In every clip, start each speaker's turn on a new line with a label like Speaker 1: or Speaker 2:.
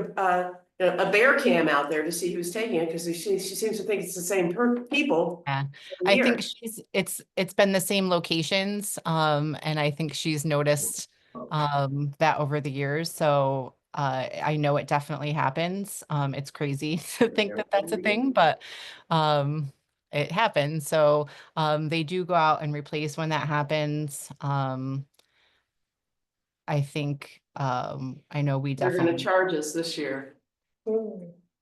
Speaker 1: uh, a bear cam out there to see who's taking it, because she, she seems to think it's the same per, people.
Speaker 2: Yeah,
Speaker 1: every
Speaker 2: I
Speaker 1: year.
Speaker 2: think she's, it's, it's been the same locations, um, and I think she's noticed,
Speaker 1: Oh.
Speaker 2: um, that over the years, so, uh, I know it definitely happens, um, it's crazy to think that that's a thing, but, um, it happens, so, um, they do go out and replace when that happens, um, I think, um, I know we
Speaker 1: They're gonna
Speaker 2: definitely.
Speaker 1: charge us this year.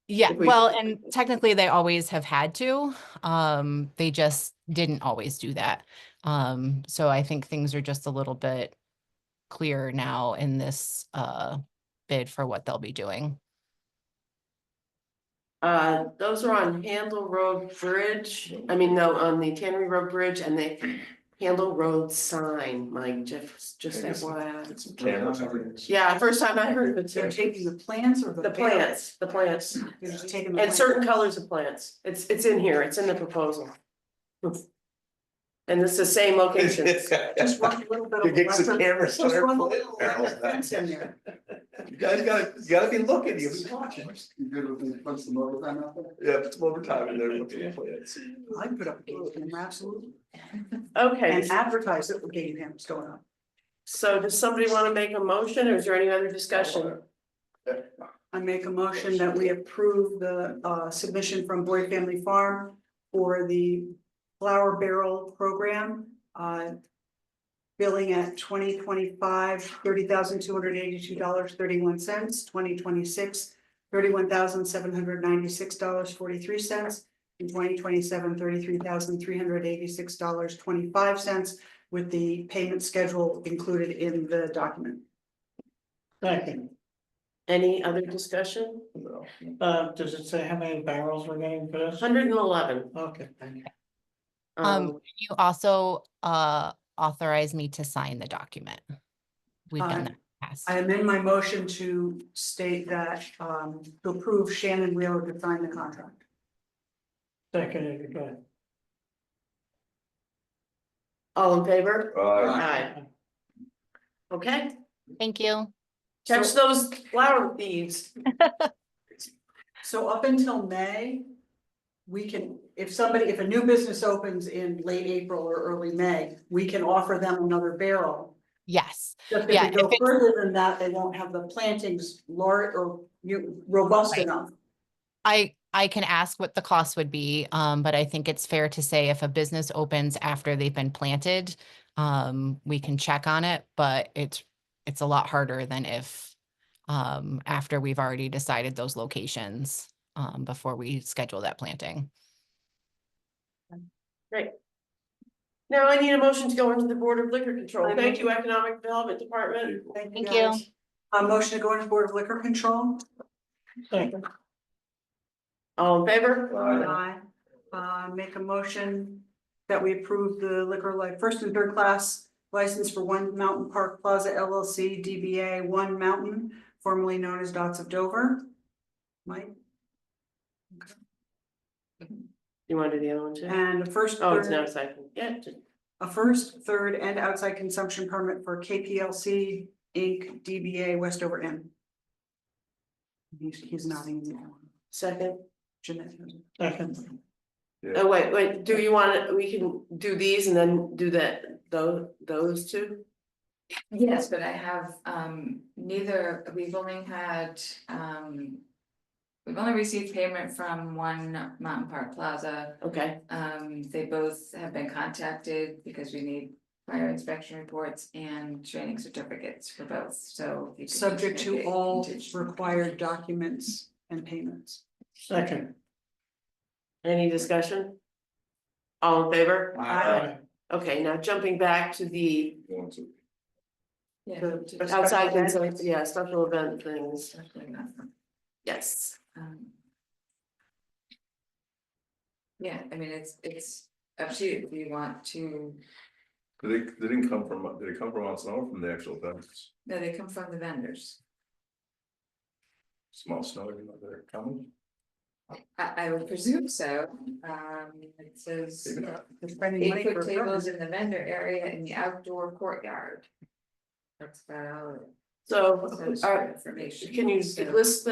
Speaker 2: Yeah,
Speaker 1: if we-
Speaker 2: well, and technically they always have had to. Um, they just didn't always do that. Um, so I think things are just a little bit clearer now in this uh bid for what they'll be doing.
Speaker 1: Uh, those are on Handle Road Bridge, I mean, no, on the Tannery Road Bridge and the Handle Road sign, Mike, just, just
Speaker 3: There's some-
Speaker 1: FYI.
Speaker 3: cameras
Speaker 1: Yeah, first time I heard of it,
Speaker 3: They're
Speaker 1: too.
Speaker 3: taking the plans or the?
Speaker 1: the plants, the plants,
Speaker 3: They're just taking the.
Speaker 1: and
Speaker 3: plants.
Speaker 1: certain colors of plants, it's, it's in here, it's in the proposal. And it's the same locations.
Speaker 3: Just one little bit of.
Speaker 4: You get some
Speaker 3: lesson-
Speaker 4: cameras on
Speaker 3: Just
Speaker 4: their
Speaker 3: one
Speaker 4: plate
Speaker 3: little
Speaker 4: barrels.
Speaker 3: fence in there.
Speaker 4: You guys gotta, you gotta be looking, you gotta be watching.
Speaker 5: You good with the, once the motor time out there?
Speaker 4: Yeah, put some overtime in there. look at the plans.
Speaker 3: I put up a game camera, absolutely.
Speaker 1: Okay,
Speaker 3: And advertise that we're getting cameras going on.
Speaker 1: so does somebody wanna make a motion, or is there any other discussion?
Speaker 3: I make a motion that we approve the uh submission from Boyd Family Farm for the flower barrel program. uh, Billing at 2025 thirty thousand two hundred eighty-two dollars thirty-one cents, twenty twenty-six, thirty-one thousand seven hundred ninety-six dollars forty-three cents, and 2027, 33,386 dollars twenty-five cents with the payment schedule included in the document.
Speaker 1: Any other discussion?
Speaker 4: No.
Speaker 6: Uh, does it say how many barrels we're getting for this?
Speaker 1: Hundred and eleven.
Speaker 6: Okay, thank you.
Speaker 2: Um, can you also uh authorize me to sign the document? We've
Speaker 3: Uh,
Speaker 2: done that in the past.
Speaker 3: I amend my motion to state that, um, to approve Shannon Wheeler to sign the contract.
Speaker 6: Second, if you could.
Speaker 1: All in favor?
Speaker 4: Uh,
Speaker 1: Aye. Okay,
Speaker 2: Thank you.
Speaker 1: catch those flower thieves.
Speaker 3: So up until May, we can, if somebody, if a new business opens in late April or early May, we can offer them another barrel.
Speaker 2: Yes,
Speaker 3: Just
Speaker 2: Yeah, if
Speaker 3: if we go
Speaker 2: it's-
Speaker 3: further than that, they won't have the plantings large or you- robust
Speaker 2: Right.
Speaker 3: enough.
Speaker 2: I I can ask what the cost would be, um, but I think it's fair to say if a business opens after they've been planted, um, we can check on it, but it's it's a lot harder than if um, after we've already decided those locations um, before we schedule that planting.
Speaker 1: Now I need a motion to go into the Board of Liquor Control. Thank you, Economic Development Department.
Speaker 2: Thank
Speaker 3: guys. A motion to go into Board of Liquor Control.
Speaker 6: Second,
Speaker 1: All in favor?
Speaker 3: Aye. Uh, make a motion that we approve the liquor like first and third class license for One Mountain Park Plaza LLC DBA One Mountain, formerly known as Dots of Dover. Mike,
Speaker 1: You want to do the other one too?
Speaker 3: and a first,
Speaker 1: Oh, it's not
Speaker 3: third-
Speaker 1: a second. Yeah, just-
Speaker 3: a first, third, and outside consumption permit for KPLC Inc. DBA Westover Inn. He's, he's nodding now.
Speaker 1: second.
Speaker 3: Jeanette.
Speaker 6: second,
Speaker 1: Oh, wait, wait, do you wanna, we can do these and then do that, tho- those two?
Speaker 7: Yes, but I have um neither, we've only had um. We've only received payment from one Mountain Park Plaza.
Speaker 1: Okay,
Speaker 7: Um, they both have been contacted because we need prior inspection reports and training certificates for both, so. if you could just
Speaker 3: Subject to
Speaker 7: make it
Speaker 3: all
Speaker 7: contingent.
Speaker 3: required documents and payments.
Speaker 6: second.
Speaker 1: any discussion? All in favor?
Speaker 6: Aye.
Speaker 1: Okay, now jumping back to the
Speaker 7: Yeah.
Speaker 3: The-
Speaker 7: to-
Speaker 1: outside, concerns, yeah, special event things,
Speaker 7: Definitely not from-
Speaker 1: yes.
Speaker 7: um, Yeah, I mean, it's it's up to you if you want to,
Speaker 4: Did it, they didn't come from, did it come from Mount Snow or from the actual fence?
Speaker 7: no, they come from the vendors.
Speaker 4: Small snow, you know, they're coming?
Speaker 7: I I would presume so, um, it says. uh,
Speaker 4: Maybe not.
Speaker 3: They're spending money
Speaker 7: Eight
Speaker 3: for
Speaker 7: foot
Speaker 3: equipment.
Speaker 7: tables in the vendor area in the outdoor courtyard. That's about all.
Speaker 1: So,
Speaker 7: it says
Speaker 1: all
Speaker 7: for
Speaker 1: right,
Speaker 7: information.
Speaker 1: can uh, you
Speaker 7: So-
Speaker 1: list